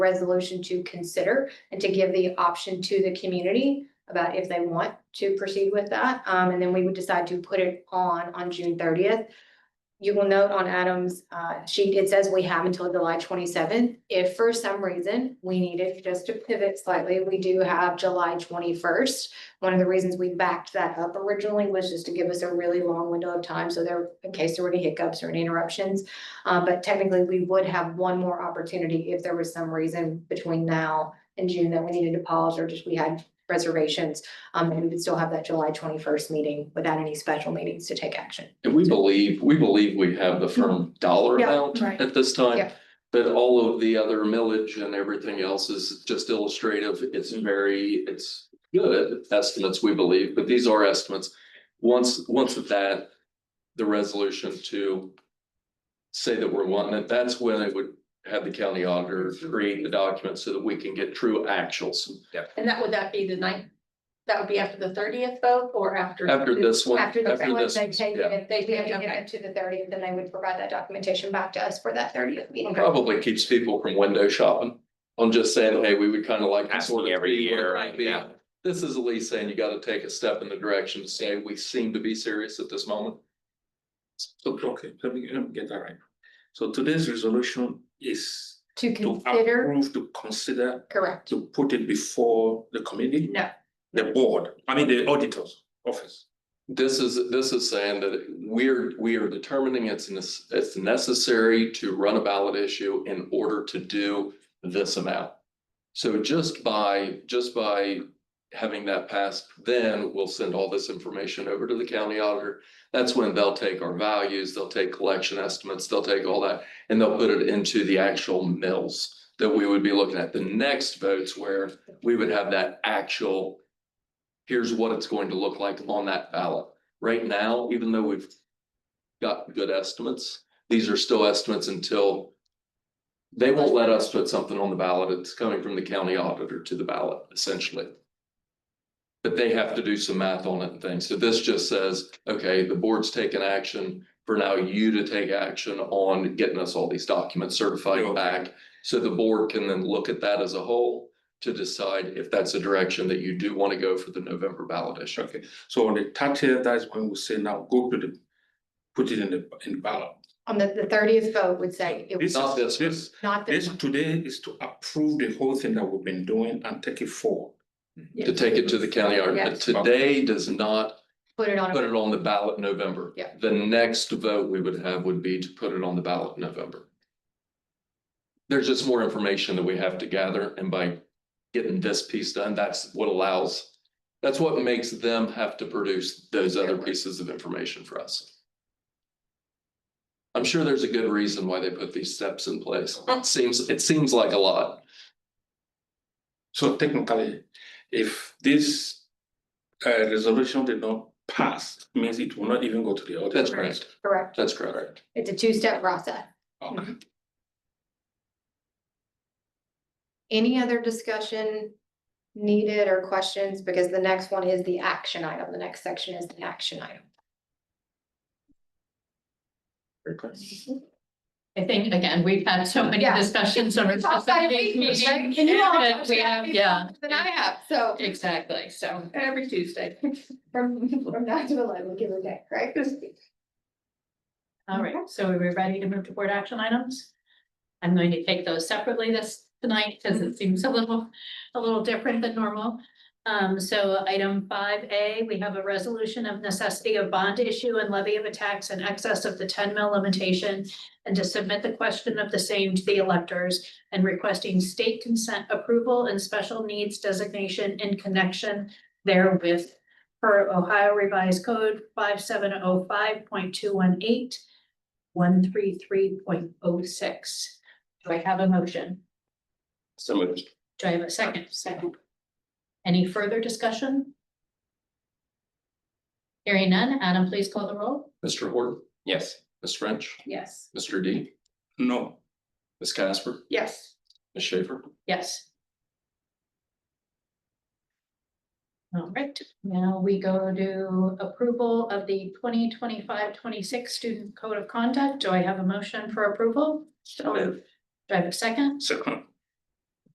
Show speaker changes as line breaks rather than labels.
resolution to consider and to give the option to the community about if they want to proceed with that. Um, and then we would decide to put it on, on June thirtieth. You will note on Adam's, uh, sheet, it says we have until July twenty-seventh. If for some reason we needed just to pivot slightly, we do have July twenty-first. One of the reasons we backed that up originally was just to give us a really long window of time, so there, in case there were any hiccups or any interruptions. Uh, but technically, we would have one more opportunity if there was some reason between now and June that we needed to pause or just we had reservations. Um, and we would still have that July twenty-first meeting without any special meetings to take action.
And we believe, we believe we have the firm dollar
Yeah,
amount
right.
at this time.
Yeah.
But all of the other millage and everything else is just illustrative. It's very, it's good estimates, we believe, but these are estimates. Once, once of that, the resolution to say that we're wanting it, that's when it would have the county auditor create the document so that we can get true actuals.
And that, would that be the ninth? That would be after the thirtieth vote or after?
After this one, after
After the, once
this,
they take
yeah.
it, they, we have to give
Okay.
it to the thirtieth, then they would provide that documentation back to us for that thirtieth meeting.
probably keeps people from window shopping. On just saying, hey, we would kind of like. to sort of
Asking every
be where
year,
it might
right,
be."
yeah.
This is at least saying you gotta take a step in the direction to say, we seem to be serious at this moment.
So, okay, let me, let me get that right. So today's resolution is
To
to
consider,
approve, to consider,
correct,
to put it before the committee,
no,
the board, I mean, the auditor's office.
This is, this is saying that we're, we are determining it's, nes- it's necessary to run a ballot issue in order to do this amount. So just by, just by having that passed, then we'll send all this information over to the county auditor. That's when they'll take our values, they'll take collection estimates, they'll take all that, and they'll put it into the actual mills that we would be looking at. The next votes where we would have that actual here's what it's going to look like on that ballot. Right now, even though we've got good estimates, these are still estimates until they won't let us put something on the ballot. It's coming from the county auditor to the ballot essentially. But they have to do some math on it and things. So this just says, okay, the board's taken action. For now, you to take action on getting us all these documents certified
Okay.
back. So the board can then look at that as a whole to decide if that's a direction that you do want to go for the November ballot issue.
Okay, so on the thirtieth, that's when we say now go to the, put it in the, in the ballot.
on the, the thirtieth vote would say it was
This
Not this
is,
one.
this,
not
this
this one.
today is to approve the whole thing that we've been doing and take it forward.
To take it to the county auditor.
Yes.
Today does not
put it on.
put it on the ballot in November.
Yeah.
The next vote we would have would be to put it on the ballot in November. There's just more information that we have to gather and by getting this piece done, that's what allows, that's what makes them have to produce those other pieces of information for us. I'm sure there's a good reason why they put these steps in place. It seems, it seems like a lot.
So technically, if this uh resolution did not pass, means it will not even go to the auditor.
That's correct.
Correct,
That's correct.
it's a two-step process.
Okay.
Any other discussion needed or questions? Because the next one is the action item. The next section is the action item.
Mm-hmm.
I think, again, we've had so many
Yeah.
discussions over.
It's outside of
these
meeting,
meetings
right? And you all
that we have, Yeah,
Then I have, so
exactly, so. Every Tuesday.
from, from nine to eleven, give or take, right?
All right, so are we ready to move to board action items? I'm going to take those separately this tonight because it seems a little, a little different than normal. Um, so item five A, we have a resolution of necessity of bond issue and levy of a tax in excess of the ten mil limitation. And to submit the question of the same to the electors and requesting state consent approval and special needs designation in connection therewith per Ohio Revised Code five seven oh five point two one eight one three three point oh six. Do I have a motion?
So moved.
Do I have a second? Second. Any further discussion? Hearing none, Adam, please call the roll.
Mr. Horton,
Yes.
Ms. French,
Yes.
Mr. D,
No,
Ms. Casper,
Yes,
Ms. Schaefer.
Yes. All right, now we go to approval of the 2025-26 student code of conduct. Do I have a motion for approval?
so moved.
Do I have a second?
Second,